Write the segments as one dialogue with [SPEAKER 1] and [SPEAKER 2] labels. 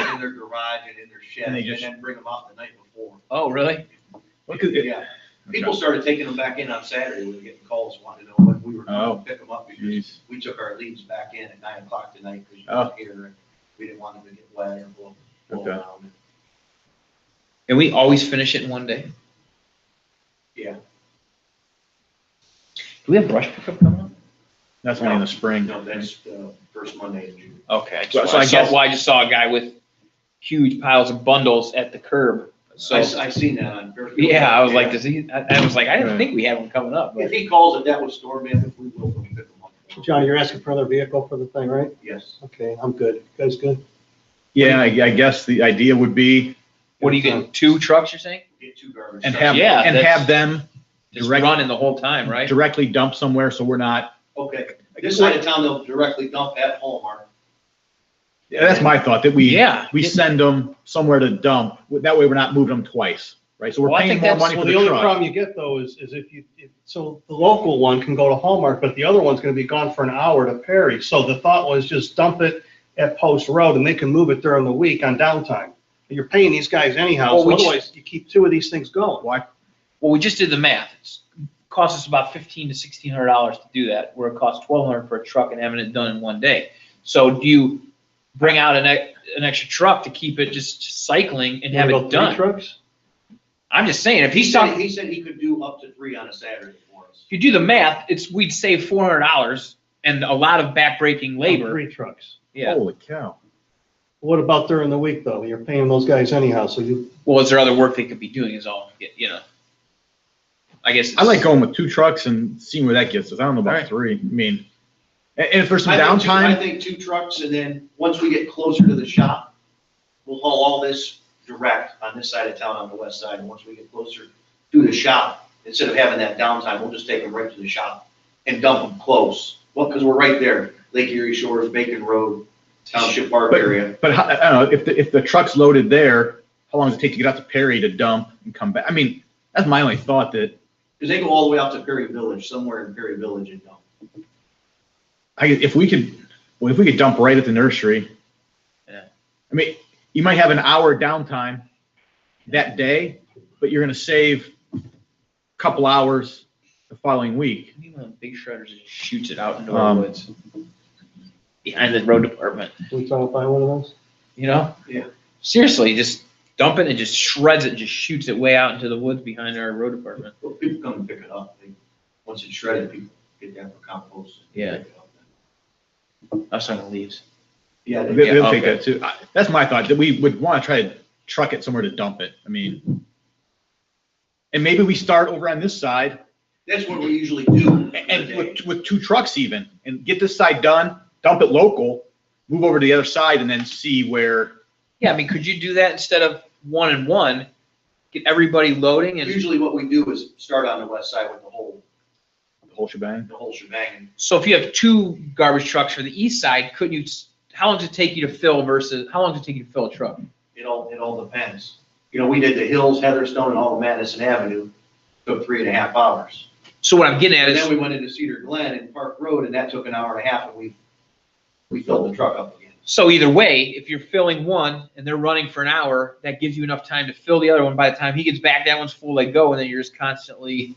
[SPEAKER 1] garage and in their shed,
[SPEAKER 2] And they
[SPEAKER 1] and
[SPEAKER 2] just-
[SPEAKER 1] then bring them out the night before.
[SPEAKER 3] Oh, really?
[SPEAKER 2] Well, 'cause it-
[SPEAKER 1] Yeah, people started taking them back in on Saturday, we were getting calls wanting to know when we were
[SPEAKER 2] Oh.
[SPEAKER 1] gonna pick them up, because
[SPEAKER 2] Jeez. Oh.
[SPEAKER 1] we took our leaves back in at nine o'clock tonight, because you were here, and we didn't want them to get wet or blow, blow
[SPEAKER 2] Okay.
[SPEAKER 1] around.
[SPEAKER 3] And we always finish it in one day?
[SPEAKER 1] Yeah.
[SPEAKER 3] Do we have brush pickup coming up?
[SPEAKER 2] That's only in the spring.
[SPEAKER 1] No, that's the first Monday in June.
[SPEAKER 3] Okay, I
[SPEAKER 2] Well,
[SPEAKER 3] just,
[SPEAKER 2] so I
[SPEAKER 3] I saw,
[SPEAKER 2] guess-
[SPEAKER 3] well, I just saw a guy with huge piles of bundles at the
[SPEAKER 1] I,
[SPEAKER 3] curb. So,
[SPEAKER 1] s- I seen that on. Fairfield.
[SPEAKER 3] yeah, I was like, does he, I, I was like, I didn't think we had one coming up,
[SPEAKER 1] If
[SPEAKER 3] but
[SPEAKER 1] he calls it, that was storm damage, we will pick them up.
[SPEAKER 4] Johnny, you're asking for another vehicle for the thing, right?
[SPEAKER 1] Yes.
[SPEAKER 4] Okay, I'm good. You Guys good?
[SPEAKER 2] Yeah, I, I guess the idea would be
[SPEAKER 3] what are you getting, two trucks, you're saying?
[SPEAKER 1] Get two garbage.
[SPEAKER 2] and
[SPEAKER 1] trucks.
[SPEAKER 2] have,
[SPEAKER 3] Yeah,
[SPEAKER 2] and
[SPEAKER 3] that's-
[SPEAKER 2] have them
[SPEAKER 3] Just
[SPEAKER 2] Direct-
[SPEAKER 3] running the whole time, right?
[SPEAKER 2] directly dump somewhere so we're not,
[SPEAKER 1] Okay, this side of town, they'll directly dump at Hallmark.
[SPEAKER 2] Yeah, that's my thought, that we,
[SPEAKER 3] Yeah.
[SPEAKER 2] we send them somewhere to dump. That way we're not moving them twice, right? So we're
[SPEAKER 3] Well, I
[SPEAKER 2] paying
[SPEAKER 3] think
[SPEAKER 2] more
[SPEAKER 3] that's-
[SPEAKER 2] money
[SPEAKER 4] Well,
[SPEAKER 2] for
[SPEAKER 4] the
[SPEAKER 2] the
[SPEAKER 4] only
[SPEAKER 2] truck.
[SPEAKER 4] problem you get though is, is if you, if- so the local one can go to Hallmark, but the other one's gonna be gone for an hour to Perry. So the thought was just dump it at Post Road and they can move it during the week on downtime. You're paying these guys anyhow,
[SPEAKER 3] Well,
[SPEAKER 4] so
[SPEAKER 3] we ju-
[SPEAKER 4] otherwise you keep two of these things going.
[SPEAKER 2] Why,
[SPEAKER 3] Well, we just did the math. It's cost us about fifteen to sixteen hundred dollars to do that, where it costs twelve hundred for a truck and having it done in one day. So do you bring out an, ex- an extra truck to keep it just cycling and have
[SPEAKER 4] You wanna go
[SPEAKER 3] it done?
[SPEAKER 4] three Trucks?
[SPEAKER 3] I'm just saying, if he's
[SPEAKER 1] said-
[SPEAKER 3] talking,
[SPEAKER 1] He said he could do up to three on a Saturday for us.
[SPEAKER 3] if you do the math, it's, we'd save four hundred dollars and a lot of backbreaking labor.
[SPEAKER 4] Three trucks.
[SPEAKER 3] Yeah.
[SPEAKER 2] holy cow.
[SPEAKER 4] What about during the week though? You're paying those guys anyhow, so you,
[SPEAKER 3] Well, is there other work they could be doing is all, you know? I guess.
[SPEAKER 2] I
[SPEAKER 3] it's-
[SPEAKER 2] like going with two trucks and seeing where that gets us. I don't know about
[SPEAKER 3] Alright.
[SPEAKER 2] three. I mean, and, and if there's some
[SPEAKER 1] I think two- I
[SPEAKER 2] downtime,
[SPEAKER 1] think two trucks, and then, once we get closer to the shop, we'll haul all this direct on this side of town, on the west side, and once we get closer to the shop, instead of having that downtime, we'll just take them right to the shop and dump them close. Well, because we're right there, Lake Erie Shores, Bacon Road, Township Park area.
[SPEAKER 2] but how, I don't know, if the, if the truck's loaded there, how long does it take to get out to Perry to dump and come back? I mean, that's my only thought that,
[SPEAKER 1] Because they go all the way out to Perry Village, somewhere in Perry Village and dump.
[SPEAKER 2] I, if we could, well, if we could dump right at the nursery.
[SPEAKER 3] Yeah.
[SPEAKER 2] I mean, you might have an hour downtime that day, but you're gonna save a couple hours the following week.
[SPEAKER 3] Maybe one of the Big shredders that just shoots it out into
[SPEAKER 2] Um,
[SPEAKER 3] the woods. Behind the road department.
[SPEAKER 4] we try to buy one of those?
[SPEAKER 3] You know?
[SPEAKER 1] Yeah.
[SPEAKER 3] Seriously, just dump it and just shreds it and just shoots it way out into the woods behind our road department.
[SPEAKER 1] Well, people come and pick it up, they, once it's shredded, people get that for compost. and
[SPEAKER 3] Yeah.
[SPEAKER 1] pick it up.
[SPEAKER 3] I was talking to leaves.
[SPEAKER 1] Yeah,
[SPEAKER 2] They-
[SPEAKER 1] they-
[SPEAKER 3] Yeah,
[SPEAKER 2] They'll take
[SPEAKER 3] okay.
[SPEAKER 2] that too. I- That's my thought, that we would wanna try to truck it somewhere to dump it. I mean, and maybe we start over on this side
[SPEAKER 1] that's what we usually do. for the
[SPEAKER 2] and
[SPEAKER 1] day.
[SPEAKER 2] with, with two trucks even, and get this side done, dump it local, move over to the other side and then see where,
[SPEAKER 3] Yeah, I mean, could you do that instead of one and one? Get everybody loading and,
[SPEAKER 1] Usually what we do is start on the west side with the whole,
[SPEAKER 2] the whole shebang.
[SPEAKER 1] the whole shebang. and
[SPEAKER 3] so if you have two garbage trucks for the east side, couldn't you, s- how long does it take you to fill versus, how long does it take you to fill a truck?
[SPEAKER 1] It all, it all depends. You know, we did the Hills, Heatherstone, and all of Madison Avenue, took three and a half hours.
[SPEAKER 3] So what I'm getting at
[SPEAKER 1] And then
[SPEAKER 3] is,
[SPEAKER 1] we went into Cedar Glen and Park Road, and that took an hour and a half, and we, we filled the truck up again.
[SPEAKER 3] so either way, if you're filling one and they're running for an hour, that gives you enough time to fill the other one. By the time he gets back, that one's full, they go, and then you're just constantly,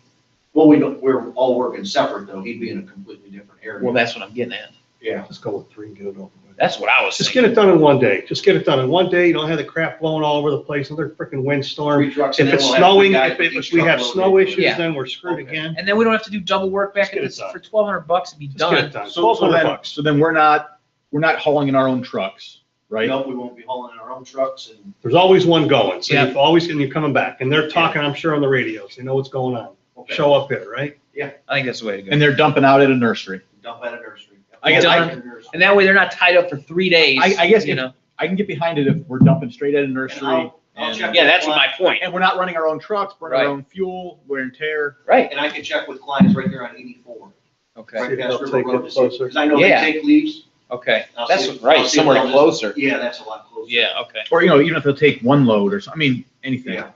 [SPEAKER 1] Well, we don't, we're all working separate, though. He'd be in a completely different area.
[SPEAKER 3] well, that's what I'm getting at.
[SPEAKER 1] Yeah.
[SPEAKER 4] Just go with three and get it over with.
[SPEAKER 3] That's what I was
[SPEAKER 4] Just
[SPEAKER 3] thinking.
[SPEAKER 4] get it done in one day. Just get it done in one day. You don't have the crap blowing all over the place, another freaking windstorm.
[SPEAKER 1] Three trucks, and then
[SPEAKER 4] If it's
[SPEAKER 1] we'll have three
[SPEAKER 4] snowing,
[SPEAKER 1] guys
[SPEAKER 4] if,
[SPEAKER 1] with
[SPEAKER 4] it-
[SPEAKER 1] each
[SPEAKER 4] if we
[SPEAKER 1] truck
[SPEAKER 4] have
[SPEAKER 1] loaded.
[SPEAKER 4] snow issues,
[SPEAKER 3] Yeah.
[SPEAKER 4] then we're screwed
[SPEAKER 1] Okay.
[SPEAKER 4] again.
[SPEAKER 3] And then we don't have to do double work back at this
[SPEAKER 4] Just get it
[SPEAKER 3] for twelve hundred bucks and be
[SPEAKER 4] Just get it
[SPEAKER 3] done.
[SPEAKER 4] done.
[SPEAKER 2] So, so
[SPEAKER 4] 1,200
[SPEAKER 2] then,
[SPEAKER 4] bucks.
[SPEAKER 2] so then we're not, we're not hauling in our own trucks, right?
[SPEAKER 1] No, we won't be hauling in our own trucks and
[SPEAKER 4] There's always one going, so
[SPEAKER 3] Yeah.
[SPEAKER 4] you've always, and you're coming back, and they're talking, I'm sure, on the radios. They know what's going on.
[SPEAKER 1] okay,
[SPEAKER 4] Show up here, right?
[SPEAKER 3] I think that's the way to go.
[SPEAKER 2] And they're dumping out at a nursery.
[SPEAKER 1] dump at a nursery.
[SPEAKER 2] I
[SPEAKER 3] guess I-
[SPEAKER 1] Dump at a nursery.
[SPEAKER 3] And that way they're not tied up for three days.
[SPEAKER 2] I- I guess
[SPEAKER 3] You
[SPEAKER 2] if-
[SPEAKER 3] know,
[SPEAKER 2] I can get behind it if we're dumping straight at a
[SPEAKER 1] And
[SPEAKER 2] nursery.
[SPEAKER 1] I'll, I'll
[SPEAKER 2] and-
[SPEAKER 1] check.
[SPEAKER 3] yeah,
[SPEAKER 1] with
[SPEAKER 3] that's
[SPEAKER 1] Glenn.
[SPEAKER 3] my point.
[SPEAKER 2] And we're not running our own trucks, burning
[SPEAKER 3] Right.
[SPEAKER 2] our own fuel, wear and tear.
[SPEAKER 3] Right.
[SPEAKER 1] And I can check with clients right there on eighty-four,
[SPEAKER 3] Okay,
[SPEAKER 1] right
[SPEAKER 4] See if they'll
[SPEAKER 1] past River
[SPEAKER 4] take
[SPEAKER 1] Road,
[SPEAKER 4] it
[SPEAKER 1] to see,
[SPEAKER 4] closer.
[SPEAKER 1] because I know they
[SPEAKER 3] Yeah.
[SPEAKER 1] take leaves.
[SPEAKER 3] okay.
[SPEAKER 1] I'll
[SPEAKER 3] That's
[SPEAKER 1] see if- I'll
[SPEAKER 3] right,
[SPEAKER 1] see if
[SPEAKER 3] somewhere
[SPEAKER 1] they'll just-
[SPEAKER 3] closer.
[SPEAKER 1] Yeah, that's a lot closer.
[SPEAKER 3] Yeah, okay.
[SPEAKER 2] Or, you know, even if they'll take one load or something, I mean, anything.
[SPEAKER 1] Yeah.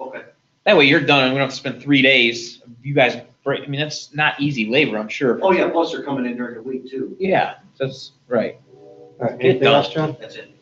[SPEAKER 1] Okay,
[SPEAKER 3] That way you're done and we don't have to spend three days. You guys break, I mean, that's not easy labor, I'm sure.
[SPEAKER 1] oh yeah, plus they're coming in during the week too,
[SPEAKER 3] Yeah, that's right.
[SPEAKER 4] All right, anything
[SPEAKER 3] done.
[SPEAKER 4] else, John?
[SPEAKER 1] that's it.